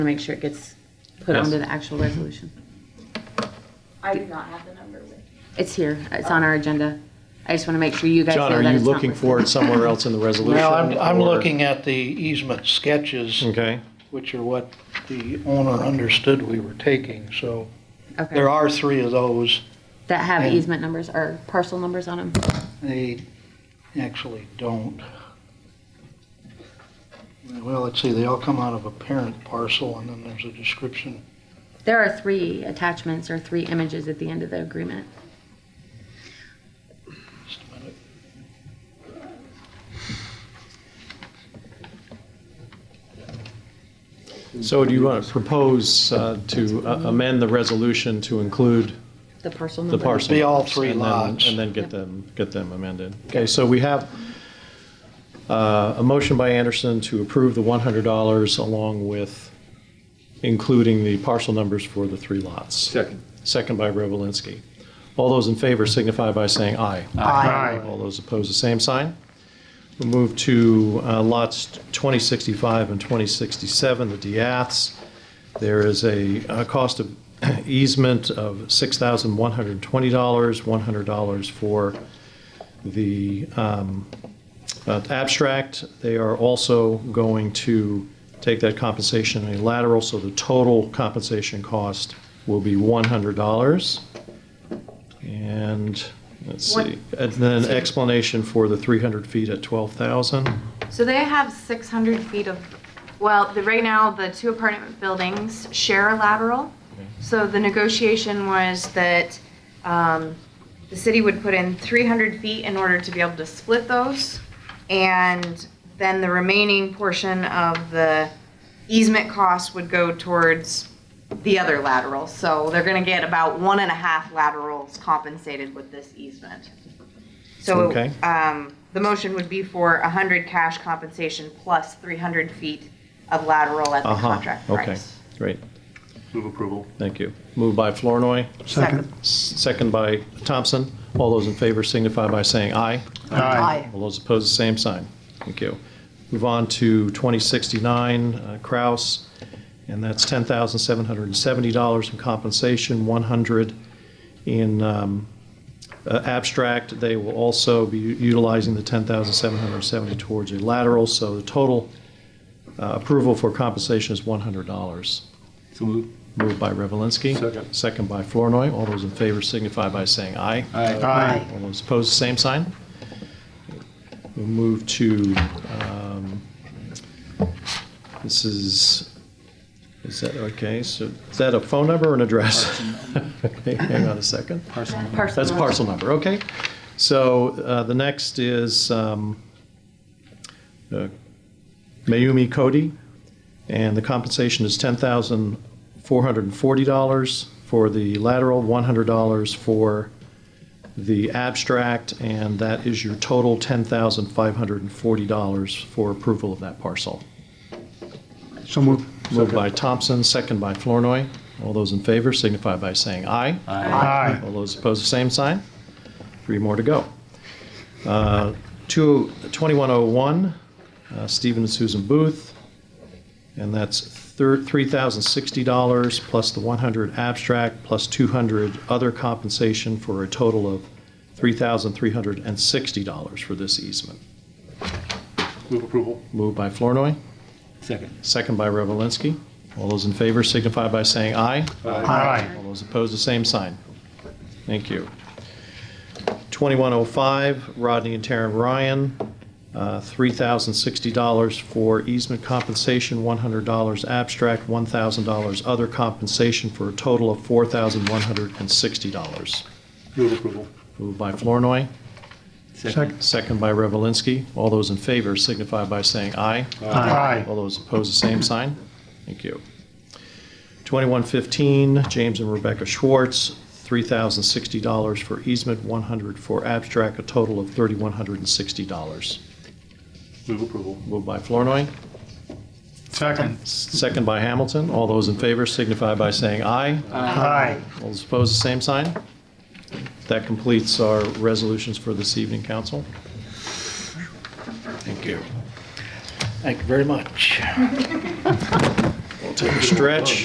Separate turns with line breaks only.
to make sure it gets put
Yes.
onto the actual resolution.
I do not have the number with me.
It's here, it's on our agenda. I just want to make sure you guys know
John,
that
are
it's
you
not
looking
listed.
for it somewhere else in the resolution?
Well, I'm, I'm
or-
looking at the easement sketches,
Okay,
which are what the owner understood we were taking, so there
Okay,
are three of those.
that have
and-
easement numbers or parcel numbers on them?
They actually don't. Well, let's see, they all come out of a parent parcel, and then there's a description.
There are three attachments or three images at the end of the agreement.
Just a minute.
so do you want to propose uh, to uh, amend the resolution to include
The parcel
the
number.
parcel?
Be all
lots
three
and then-
lots.
And then get them, get them amended. Okay, so we have uh, a motion by Anderson to approve the $100 along with including the parcel numbers for the three lots.
Second.
Second by Revelinsky. All those in favor signify by saying aye.
Aye.
All those opposed, the same sign. We'll move to uh, lots 2065 and 2067, the Diaths. There is a uh, cost of easement of $6,120, $100 for the um, uh, abstract. They are also going to take that compensation in a lateral, so the total compensation cost will be $100. And, let's
What-
see, and then explanation for the 300 feet at 12,000.
So they have 600 feet of, well, the, right now, the two apartment buildings share a lateral. So the negotiation was that um, the city would put in 300 feet in order to be able to split those. And then the remaining portion of the easement cost would go towards the other lateral. So they're going to get about one and a half laterals compensated with this easement. So
Okay.
um, the motion would be for 100 cash compensation plus 300 feet of lateral at the
Uh-huh,
contract
Okay,
price.
great,
Move approval.
thank you. Moved by Flournoy,
Second.
s- second by Thompson. All those in favor signify by saying aye.
Aye.
All those opposed, the same sign. Thank you. Move on to 2069 uh, Kraus, and that's $10,770 in compensation, 100 in um, uh, abstract. They will also be utilizing the 10770 towards a lateral, so the total uh, approval for compensation is $100.
So move.
Moved by Revelinsky.
Second.
Second by Flournoy. All those in favor signify by saying aye.
Aye.
All those opposed, the same sign. We'll move to, um, this is, is that, okay, so is that a phone number or an address? Okay, Hang on a second. That's
Parcel
parcel number, okay. So uh, the next is um, uh, Mayumi Cody, and the compensation is $10,440 for the lateral, $100 for the abstract, and that is your total $10,540 for approval of that parcel.
So moved.
Moved by Thompson, second by Flournoy. All those in favor signify by saying aye.
Aye.
All those opposed, the same sign. Three more to go. Uh, two- 2101, uh, Stephen and Susan Booth, and that's thir- $3,060 plus the 100 abstract plus 200 other compensation for a total of $3,360 for this easement.
Move approval.
Moved by Flournoy,
Second.
second by Revelinsky. All those in favor signify by saying aye.
Aye.
All those opposed, the same sign. Thank you. 2105, Rodney and Taryn Ryan, uh, $3,060 for easement compensation, $100 abstract, $1,000 other compensation, for a total of $4,160.
Move approval.
Moved by Flournoy,
Second.
second by Revelinsky. All those in favor signify by saying aye.
Aye.
All those opposed, the same sign. Thank you. 2115, James and Rebecca Schwartz, $3,060 for easement, 100 for abstract, a total of $3,160.
Move approval.
Moved by Flournoy,
Second.
second by Hamilton. All those in favor signify by saying aye.
Aye.
All those opposed, the same sign. That completes our resolutions for this evening, council. Thank you.
Thank you very much.
We'll took a stretch.